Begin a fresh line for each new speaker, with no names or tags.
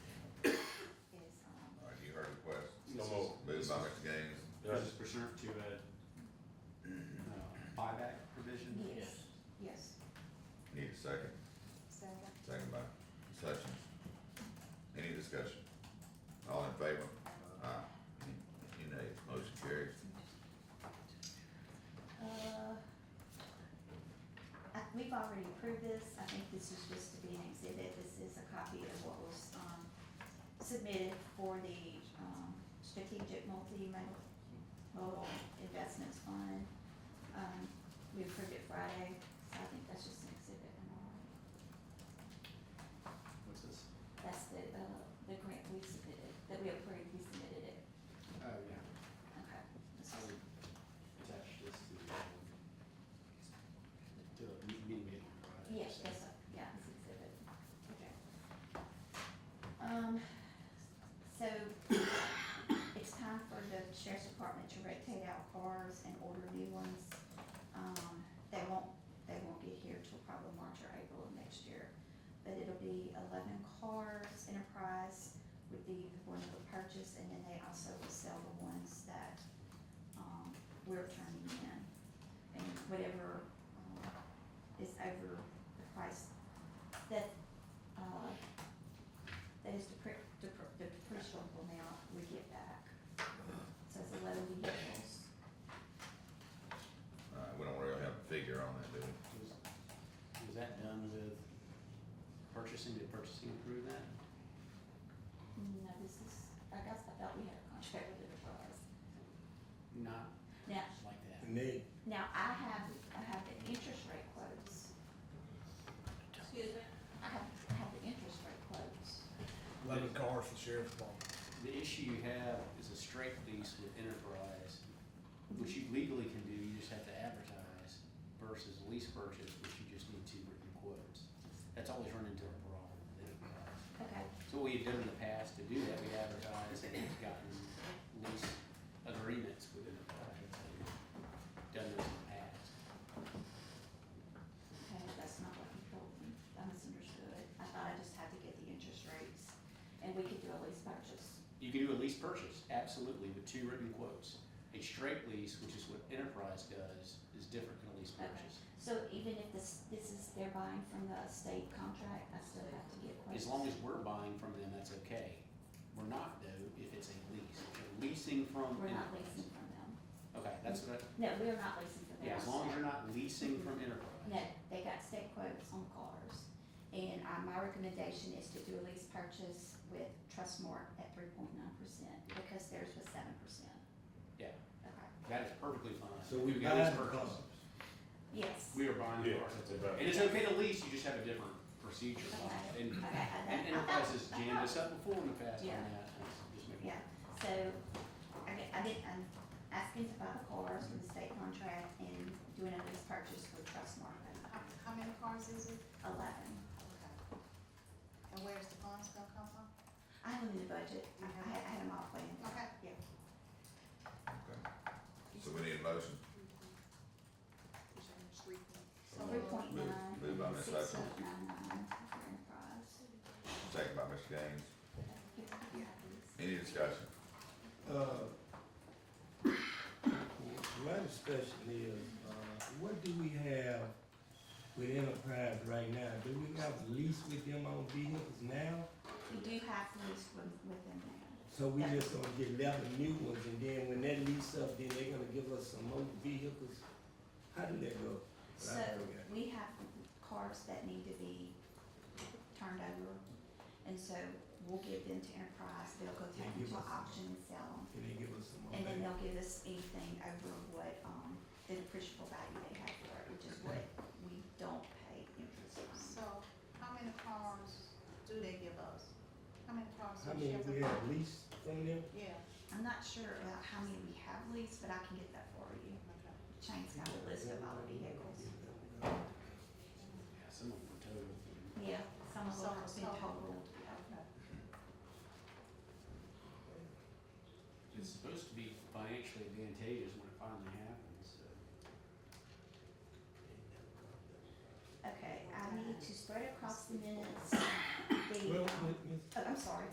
um,
uh,
discussion? All in favor? Aye. Any nays? Motion carries.
Uh, I- We've already approved this, I think this is just to be an exhibit, this is a copy of what was, um, submitted for the, um, strategic multimodal investments fund. Um, we approved it Friday, so I think that's just an exhibit and all.
What's this?
That's the, uh, the grant we submitted, that we approved, we submitted it,
Oh, yeah.
okay. this
I
is-
would attach this to the, um, to the meeting minute. right?
Yes,
So,
that's, a- yeah, it's exhibit, okay. Um, so it's time for the sheriff's department to rotate out cars and order new ones. Um, they won't, they won't get here till probably March or April of next year. But it'll be eleven cars, Enterprise would be the one that would purchase, and then they also will sell the ones that, um, we're turning in. And whatever, um, is over the price that, uh, that is depre- depre- the depreciable amount we get back. So it's eleven vehicles.
Uh, we don't really have a figure on that, do we?
Was was that done with purchasing, did purchasing approve that?
No, this is, I guess I thought we had a contract with the department.
Not
Now,
like that.
Nate,
now I have, I have the interest rate quotes.
Excuse me?
I have, I have the interest rate quotes.
eleven cars for sheriff's department.
The issue you have is a straight lease with enterprise, which you legally can do, you just have to advertise, versus a lease purchase, which you just need two written quotes. That's always run into a problem with enterprise.
Okay,
So what we've done in the past to do that, we advertise and we've gotten lease agreements with enterprise, and we've done those in the past.
okay, that's not what you told me. I misunderstood. I thought I just had to get the interest rates and we could do a lease purchase.
You can do a lease purchase, absolutely, with two written quotes. A straight lease, which is what enterprise does, is different than a lease purchase.
So even if this, this is, they're buying from the state contract, I still have to get quotes?
As long as we're buying from them, that's okay. We're not though, if it's a lease. If you're leasing from.
We're not
Enterprise-
leasing from them.
Okay, that's what, I-
No, we're not leasing from them.
yeah, as long as you're not leasing from enterprise.
No, they got state quotes on cars. And, uh, my recommendation is to do a lease purchase with Trustmark at three point nine percent because theirs was seven percent.
Yeah.
Okay,
That is perfectly fine.
So we
We've got a
buy
lease
the
purchase.
cars.
yes.
We are buying the
Yeah,
cars.
that's right.
And it's okay to lease, you just have a different procedure on it. And,
Okay, okay, I-
and
I- I thought-
enterprise has
I
jammed
thought-
us up before in the past on
Yeah.
that. Just making-
Yeah, so I get, I get, I'm asking to buy the cars from the state contract and doing a lease purchase for Trustmark at
How- How many cars is it?
eleven.
Okay. And where's the funds gonna come from?
I have them in the budget, I, I had, I had them all planned.
Okay.
Yeah.
Okay. So we need a motion.
So
Three
moved.
point nine.
Moved by Ms. Hutchins. Second by Mr. Gaines. Any discussion?
Uh, My discussion Uh, is, uh, what do we have with Enterprise right now? Do we have lease with them on vehicles now?
We do have lease with, within there.
So we just gonna get eleven new ones and then when that lease up, then they gonna give us some more vehicles? How did that go?
So we have cars that need to be turned over, and so we'll give them to Enterprise, they'll go take them to auction and sell them.
Can they give us some more?
And then
back?
they'll give us anything over what, um, the depreciable value they have for it, which is what we don't pay interest on.
So how many cars do they give us? How many cars
How
do
many
Chevron
we have leased from them?
Yeah,
I'm not sure about how many we have leased, but I can get that for you.
okay.
Shane's got a list of all the vehicles.
Yeah, some of them were total.
Yeah, some of them have
So-
been
so-
totaled.
Okay.
It's supposed to be financially advantageous when it finally happens, so.
Okay, I need to spread across the minutes, the,
Well,
um,
Ms.
oh, I'm sorry,